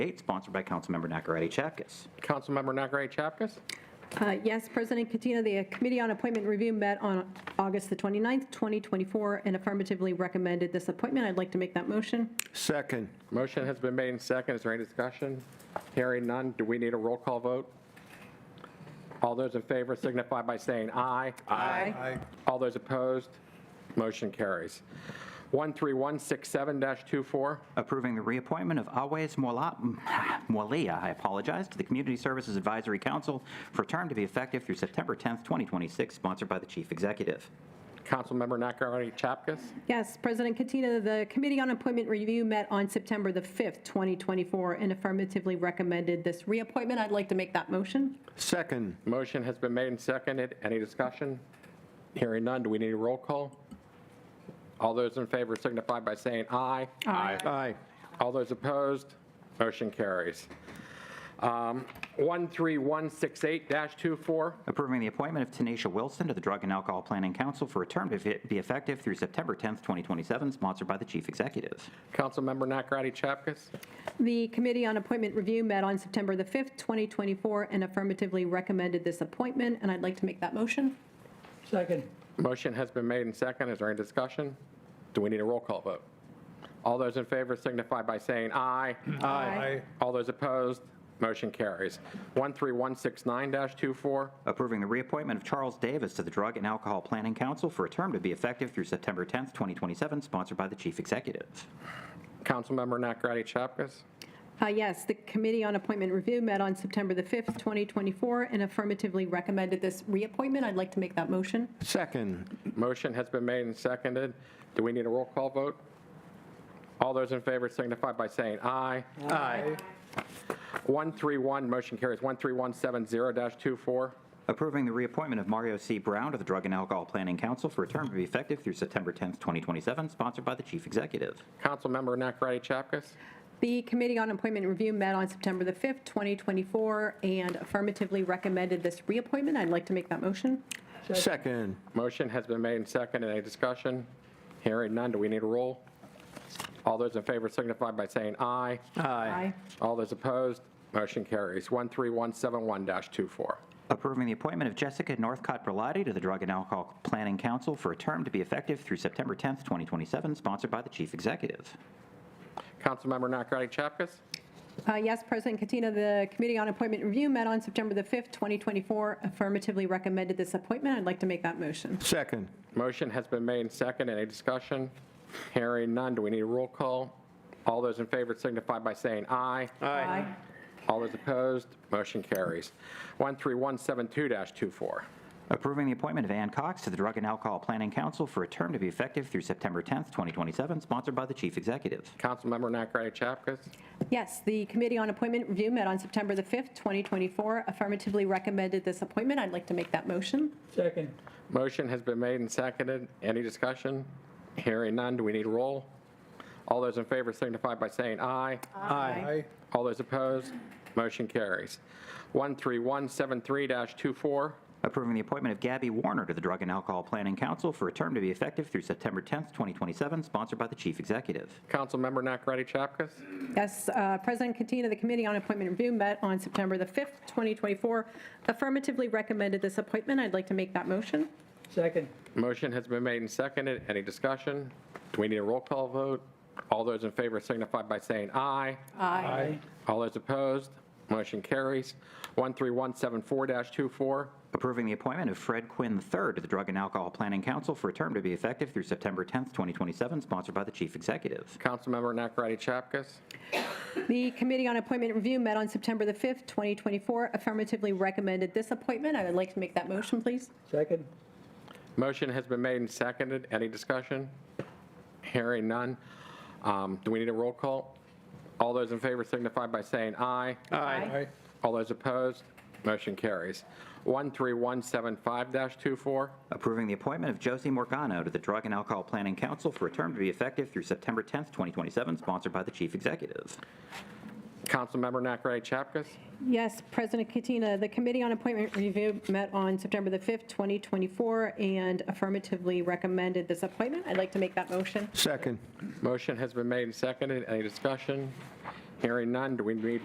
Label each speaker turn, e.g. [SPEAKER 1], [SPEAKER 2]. [SPEAKER 1] eight, sponsored by Councilmember Nakaradi Chapkus.
[SPEAKER 2] Councilmember Nakaradi Chapkus?
[SPEAKER 3] Uh, Yes, President Katina, the uh, Committee on Appointment Review met on August the 29th, 2024, and affirmatively recommended this appointment. I'd like to make that motion.
[SPEAKER 4] Second.
[SPEAKER 2] Motion has been made and second. Is there any discussion? Hearing none, do we need a roll call vote? All those in favor signify by saying aye.
[SPEAKER 3] Aye.
[SPEAKER 2] All those opposed, motion carries. 13167-24,
[SPEAKER 1] Approving the reappointment of Awais Mwala- Mwalia, I apologize, to the Community Services Advisory Council for a term to be effective through September 10th, 2026, sponsored by the Chief Executive.
[SPEAKER 2] Councilmember Nakaradi Chapkus?
[SPEAKER 3] Yes, President Katina, the Committee on Appointment Review met on September the 5th, 2024, and affirmatively recommended this reappointment. I'd like to make that motion.
[SPEAKER 4] Second.
[SPEAKER 2] Motion has been made and seconded. Any discussion? Hearing none, do we need a roll call? All those in favor signify by saying aye.
[SPEAKER 3] Aye.
[SPEAKER 4] Aye.
[SPEAKER 2] All those opposed, motion carries. Um, 13168-24,
[SPEAKER 1] Approving the appointment of Tanisha Wilson to the Drug and Alcohol Planning Council for a term to fi- be effective through September 10th, 2027, sponsored by the Chief Executive.
[SPEAKER 2] Councilmember Nakaradi Chapkus.
[SPEAKER 3] The Committee on Appointment Review met on September the 5th, 2024, and affirmatively recommended this appointment, and I'd like to make that motion.
[SPEAKER 5] Second.
[SPEAKER 2] Motion has been made and second. Is there any discussion? Do we need a roll call vote? All those in favor signify by saying aye.
[SPEAKER 3] Aye.
[SPEAKER 2] All those opposed, motion carries. 13169-24,
[SPEAKER 1] Approving the reappointment of Charles Davis to the Drug and Alcohol Planning Council for a term to be effective through September 10th, 2027, sponsored by the Chief Executive.
[SPEAKER 2] Councilmember Nakaradi Chapkus.
[SPEAKER 3] Uh, Yes, the Committee on Appointment Review met on September the 5th, 2024, and affirmatively recommended this reappointment. I'd like to make that motion.
[SPEAKER 4] Second.
[SPEAKER 2] Motion has been made and seconded. Do we need a roll call vote? All those in favor signify by saying aye.
[SPEAKER 4] Aye.
[SPEAKER 2] 131, motion carries. 13170-24.
[SPEAKER 1] Approving the reappointment of Mario C. Brown to the Drug and Alcohol Planning Council for a term to be effective through September 10th, 2027, sponsored by the Chief Executive.
[SPEAKER 2] Councilmember Nakaradi Chapkus.
[SPEAKER 3] The Committee on Appointment Review met on September the 5th, 2024, and affirmatively recommended this reappointment. I'd like to make that motion.
[SPEAKER 4] Second.
[SPEAKER 2] Motion has been made and seconded. Any discussion? Hearing none, do we need a roll? All those in favor signify by saying aye.
[SPEAKER 3] Aye.
[SPEAKER 2] All those opposed, motion carries. 13171-24.
[SPEAKER 1] Approving the appointment of Jessica Northcott Berlotti to the Drug and Alcohol Planning Council for a term to be effective through September 10th, 2027, sponsored by the Chief Executive.
[SPEAKER 2] Councilmember Nakaradi Chapkus.
[SPEAKER 3] Uh, Yes, President Katina, the Committee on Appointment Review met on September the 5th, 2024, affirmatively recommended this appointment. I'd like to make that motion.
[SPEAKER 4] Second.
[SPEAKER 2] Motion has been made and seconded. Any discussion? Hearing none, do we need a roll call? All those in favor signify by saying aye.
[SPEAKER 3] Aye.
[SPEAKER 2] All those opposed, motion carries. 13172-24.
[SPEAKER 1] Approving the appointment of Ann Cox to the Drug and Alcohol Planning Council for a term to be effective through September 10th, 2027, sponsored by the Chief Executive.
[SPEAKER 2] Councilmember Nakaradi Chapkus.
[SPEAKER 3] Yes, the Committee on Appointment Review met on September the 5th, 2024, affirmatively recommended this appointment. I'd like to make that motion.
[SPEAKER 5] Second.
[SPEAKER 2] Motion has been made and seconded. Any discussion? Hearing none, do we need a roll? All those in favor signify by saying aye.
[SPEAKER 3] Aye.
[SPEAKER 2] All those opposed, motion carries. 13173-24.
[SPEAKER 1] Approving the appointment of Gabby Warner to the Drug and Alcohol Planning Council for a term to be effective through September 10th, 2027, sponsored by the Chief Executive.
[SPEAKER 2] Councilmember Nakaradi Chapkus.
[SPEAKER 3] Yes, uh, President Katina, the Committee on Appointment Review met on September the 5th, 2024, affirmatively recommended this appointment. I'd like to make that motion.
[SPEAKER 5] Second.
[SPEAKER 2] Motion has been made and seconded. Any discussion? Do we need a roll call vote? All those in favor signify by saying aye.
[SPEAKER 3] Aye.
[SPEAKER 2] All those opposed, motion carries. 13174-24.
[SPEAKER 1] Approving the appointment of Fred Quinn III to the Drug and Alcohol Planning Council for a term to be effective through September 10th, 2027, sponsored by the Chief Executive.
[SPEAKER 2] Councilmember Nakaradi Chapkus.
[SPEAKER 3] The Committee on Appointment Review met on September the 5th, 2024, affirmatively recommended this appointment. I would like to make that motion, please.
[SPEAKER 5] Second.
[SPEAKER 2] Motion has been made and seconded. Any discussion? Hearing none. Um, Do we need a roll call? All those in favor signify by saying aye.
[SPEAKER 3] Aye.
[SPEAKER 2] All those opposed, motion carries. 13175-24.
[SPEAKER 1] Approving the appointment of Josie Morgano to the Drug and Alcohol Planning Council for a term to be effective through September 10th, 2027, sponsored by the Chief Executive.
[SPEAKER 2] Councilmember Nakaradi Chapkus.
[SPEAKER 3] Yes, President Katina, the Committee on Appointment Review met on September the 5th, 2024, and affirmatively recommended this appointment. I'd like to make that motion.
[SPEAKER 4] Second.
[SPEAKER 2] Motion has been made and seconded. Any discussion? Hearing none, do we need